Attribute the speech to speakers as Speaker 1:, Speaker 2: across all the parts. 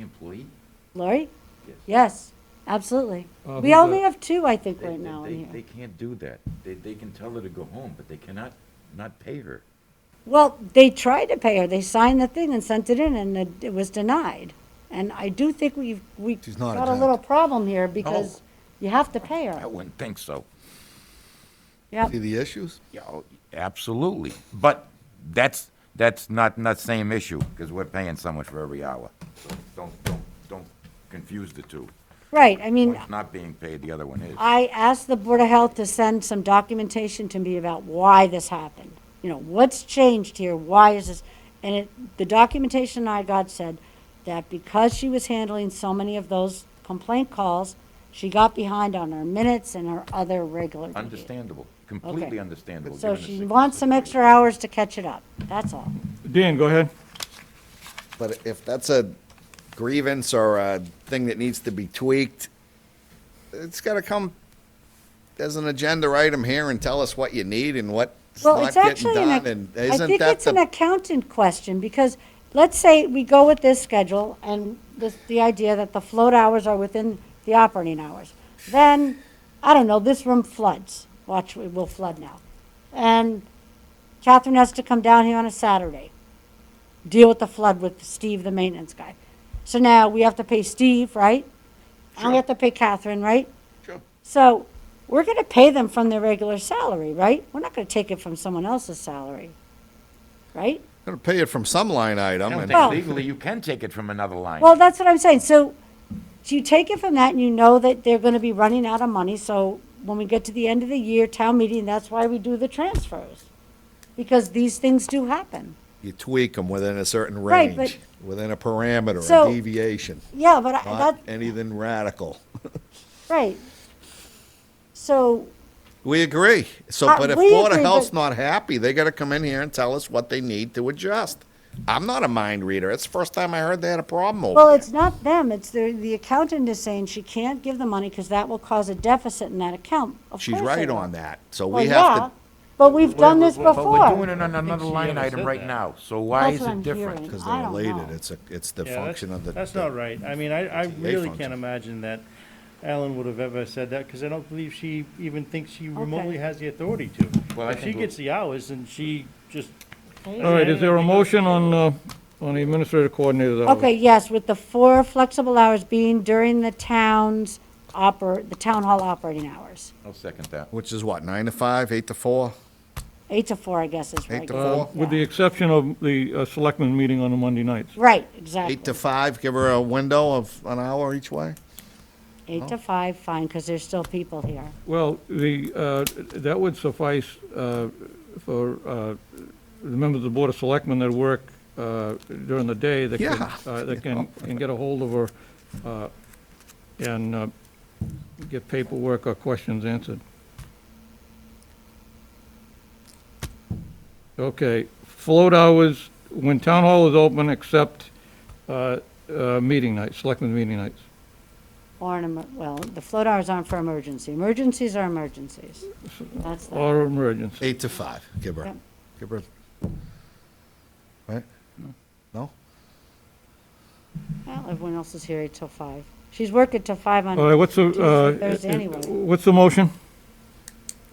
Speaker 1: employee?
Speaker 2: Lori?
Speaker 1: Yes.
Speaker 2: Yes, absolutely.
Speaker 3: Uh,
Speaker 2: We
Speaker 3: who's
Speaker 2: only
Speaker 3: that?
Speaker 2: have two, I think,
Speaker 1: They-
Speaker 2: right
Speaker 1: they-
Speaker 2: now
Speaker 1: they-
Speaker 2: in
Speaker 1: They
Speaker 2: here.
Speaker 1: can't do that. They, they can tell her to go home, but they cannot not pay her.
Speaker 2: Well, they tried to pay her, they signed the thing and sent it in, and it- it was denied. And I do think we've, we
Speaker 4: She's not
Speaker 2: got a
Speaker 4: exempt.
Speaker 2: little problem here, because you have to pay
Speaker 1: I
Speaker 2: her.
Speaker 1: wouldn't think so.
Speaker 2: Yep,
Speaker 4: See the issues?
Speaker 1: Yeah, oh, absolutely. But that's, that's not, not same issue, because we're paying someone for every hour. So Don't, don't, don't confuse the two.
Speaker 2: right, I mean,
Speaker 1: One's not being paid, the other one is.
Speaker 2: I asked the Board of Health to send some documentation to me about why this happened. You know, what's changed here? Why is this? And it, the documentation I got said that because she was handling so many of those complaint calls, she got behind on her minutes and her other regular duties.
Speaker 1: Understandable, completely understandable.
Speaker 2: So
Speaker 1: given the
Speaker 2: she
Speaker 1: sick-
Speaker 2: wants some extra hours to catch it up. That's all.
Speaker 3: Dan, go ahead.
Speaker 4: But if that's a grievance or a thing that needs to be tweaked, it's gotta come as an agenda item here and tell us what you need and what's
Speaker 2: Well,
Speaker 4: not
Speaker 2: it's
Speaker 4: getting
Speaker 2: actually, an
Speaker 4: done,
Speaker 2: ac-
Speaker 4: and
Speaker 2: I
Speaker 4: isn't
Speaker 2: think
Speaker 4: that
Speaker 2: it's an
Speaker 4: the,
Speaker 2: accountant question, because let's say we go with this schedule and this, the idea that the float hours are within the operating hours. Then, I don't know, this room floods. Watch, it will flood now. And Catherine has to come down here on a Saturday, deal with the flood with Steve, the maintenance guy. So now we have to pay Steve, right? And we have to pay Catherine, right? So we're going to pay them from their regular salary, right? We're not going to take it from someone else's salary, right?
Speaker 4: gonna pay it from some line item,
Speaker 1: I don't
Speaker 4: and
Speaker 1: think
Speaker 2: Well-
Speaker 1: legally you can take it from another line.
Speaker 2: Well, that's what I'm saying. So do you take it from that and you know that they're going to be running out of money? So when we get to the end of the year, town meeting, that's why we do the transfers. Because these things do happen.
Speaker 4: you tweak them within a certain
Speaker 2: Right, but-
Speaker 4: range, within a parameter,
Speaker 2: So-
Speaker 4: a deviation,
Speaker 2: Yeah, but I-
Speaker 4: not
Speaker 2: that,
Speaker 4: anything radical.
Speaker 2: right. So,
Speaker 4: We agree. So,
Speaker 2: Uh,
Speaker 4: but if
Speaker 2: we
Speaker 4: Board of
Speaker 2: agree,
Speaker 4: Health's
Speaker 2: but-
Speaker 4: not happy, they gotta come in here and tell us what they need to adjust. I'm not a mind reader. It's the first time I heard they had a problem over
Speaker 2: well,
Speaker 4: there.
Speaker 2: it's not them, it's the, the accountant is saying she can't give the money because that will cause a deficit in that account. Of
Speaker 4: She's
Speaker 2: course it
Speaker 4: right
Speaker 2: will.
Speaker 4: on that. So
Speaker 2: Well,
Speaker 4: we
Speaker 2: yeah,
Speaker 4: have
Speaker 2: but we've done this
Speaker 1: But we're doing
Speaker 2: before.
Speaker 1: it on another
Speaker 5: she
Speaker 1: line
Speaker 5: ever
Speaker 1: item
Speaker 5: said
Speaker 1: right
Speaker 5: that.
Speaker 1: now, so why
Speaker 2: That's
Speaker 1: is
Speaker 2: what I'm
Speaker 1: it different?
Speaker 2: hearing.
Speaker 4: to, because
Speaker 2: I
Speaker 4: they're
Speaker 2: don't
Speaker 4: related.
Speaker 2: know.
Speaker 4: It's a, it's the
Speaker 5: Yeah, that's-
Speaker 4: function of the.
Speaker 5: That's not right. I mean, I, I
Speaker 4: It's the A
Speaker 5: really
Speaker 4: function.
Speaker 5: can't imagine that Alan would have ever said that, because I don't believe she even thinks she remotely has the authority to.
Speaker 1: Well, I
Speaker 5: If she
Speaker 1: think
Speaker 5: gets the hours and she just.
Speaker 3: All right, is there a motion on, uh, on the administrative coordinator's hours?
Speaker 2: Okay, yes, with the four flexible hours being during the town's oper, the town hall operating hours.
Speaker 1: I'll second that.
Speaker 4: Which is what, nine to five, eight to four?
Speaker 2: Eight to four, I guess, is
Speaker 4: Eight to
Speaker 2: regular.
Speaker 4: four?
Speaker 3: With the exception of the uh, selectmen meeting on the Monday nights.
Speaker 2: Right, exactly.
Speaker 4: Eight to five, give her a window of an hour each way?
Speaker 2: Eight to five, fine, because there's still people here.
Speaker 3: Well, the, uh, that would suffice uh, for uh, the members of the Board of Selectmen that work uh, during the day that can,
Speaker 4: Yeah.
Speaker 3: uh, that can, can get a hold of her uh, and uh, get paperwork or questions answered. Okay, float hours, when town hall is open, except uh, uh, meeting nights, selectmen meeting nights.
Speaker 2: Or an, emer- well, the float hours aren't for emergency. Emergencies are emergencies. That's that.
Speaker 3: Or emergency.
Speaker 4: Eight to five, give her,
Speaker 2: Yep.
Speaker 4: give her. Right? No?
Speaker 2: Well, everyone else is here eight till five. She's working till five on.
Speaker 3: All right, what's the, uh,
Speaker 2: Tuesday, Thursday
Speaker 3: uh,
Speaker 2: anyway.
Speaker 3: what's the motion?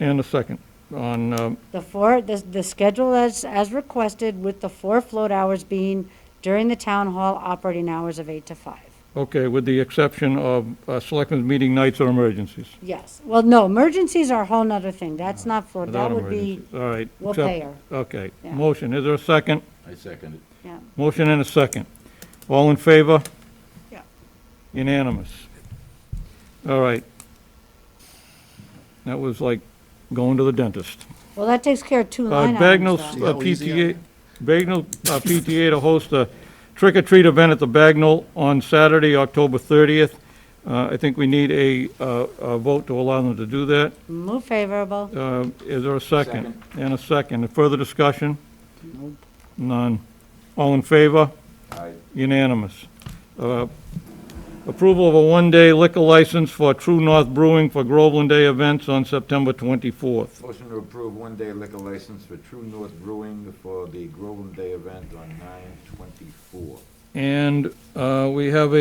Speaker 3: And a second on, um,
Speaker 2: The four, the, the schedule as, as requested with the four float hours being during the town hall operating hours of eight to five.
Speaker 3: okay, with the exception of uh, selectmen's meeting nights or emergencies.
Speaker 2: Yes, well, no, emergencies are a whole nother thing, that's not float, that
Speaker 3: Without
Speaker 2: would be,
Speaker 3: emergencies. All right.
Speaker 2: we'll
Speaker 3: except-
Speaker 2: pay her.
Speaker 3: Okay,
Speaker 2: Yeah.
Speaker 3: motion, is there a second?
Speaker 1: I second it.
Speaker 2: yeah.
Speaker 3: Motion and a second. All in favor?
Speaker 2: Yeah.
Speaker 3: Unanimous. All right. That was like going to the dentist.
Speaker 2: Well, that takes care of two
Speaker 3: Uh,
Speaker 2: line
Speaker 3: Bagnell's
Speaker 2: items, though.
Speaker 3: uh,
Speaker 4: how easy I
Speaker 3: PTA, Bagnell uh, PTA to host a trick-or-treat event at the Bagnell on Saturday, October 30th. Uh, I think we need a, uh, a vote to allow them to do that.
Speaker 2: Move favorable,
Speaker 3: Uh, Is there a second? And a second. Further discussion? None. All in favor?
Speaker 1: Aye.
Speaker 3: Unanimous. Uh, Approval of a one-day liquor license for True North Brewing for Groveland Day events on September 24th.
Speaker 1: Motion to approve one-day liquor license for True North Brewing for the Groveland Day event on nine twenty-four.
Speaker 3: And uh, we have a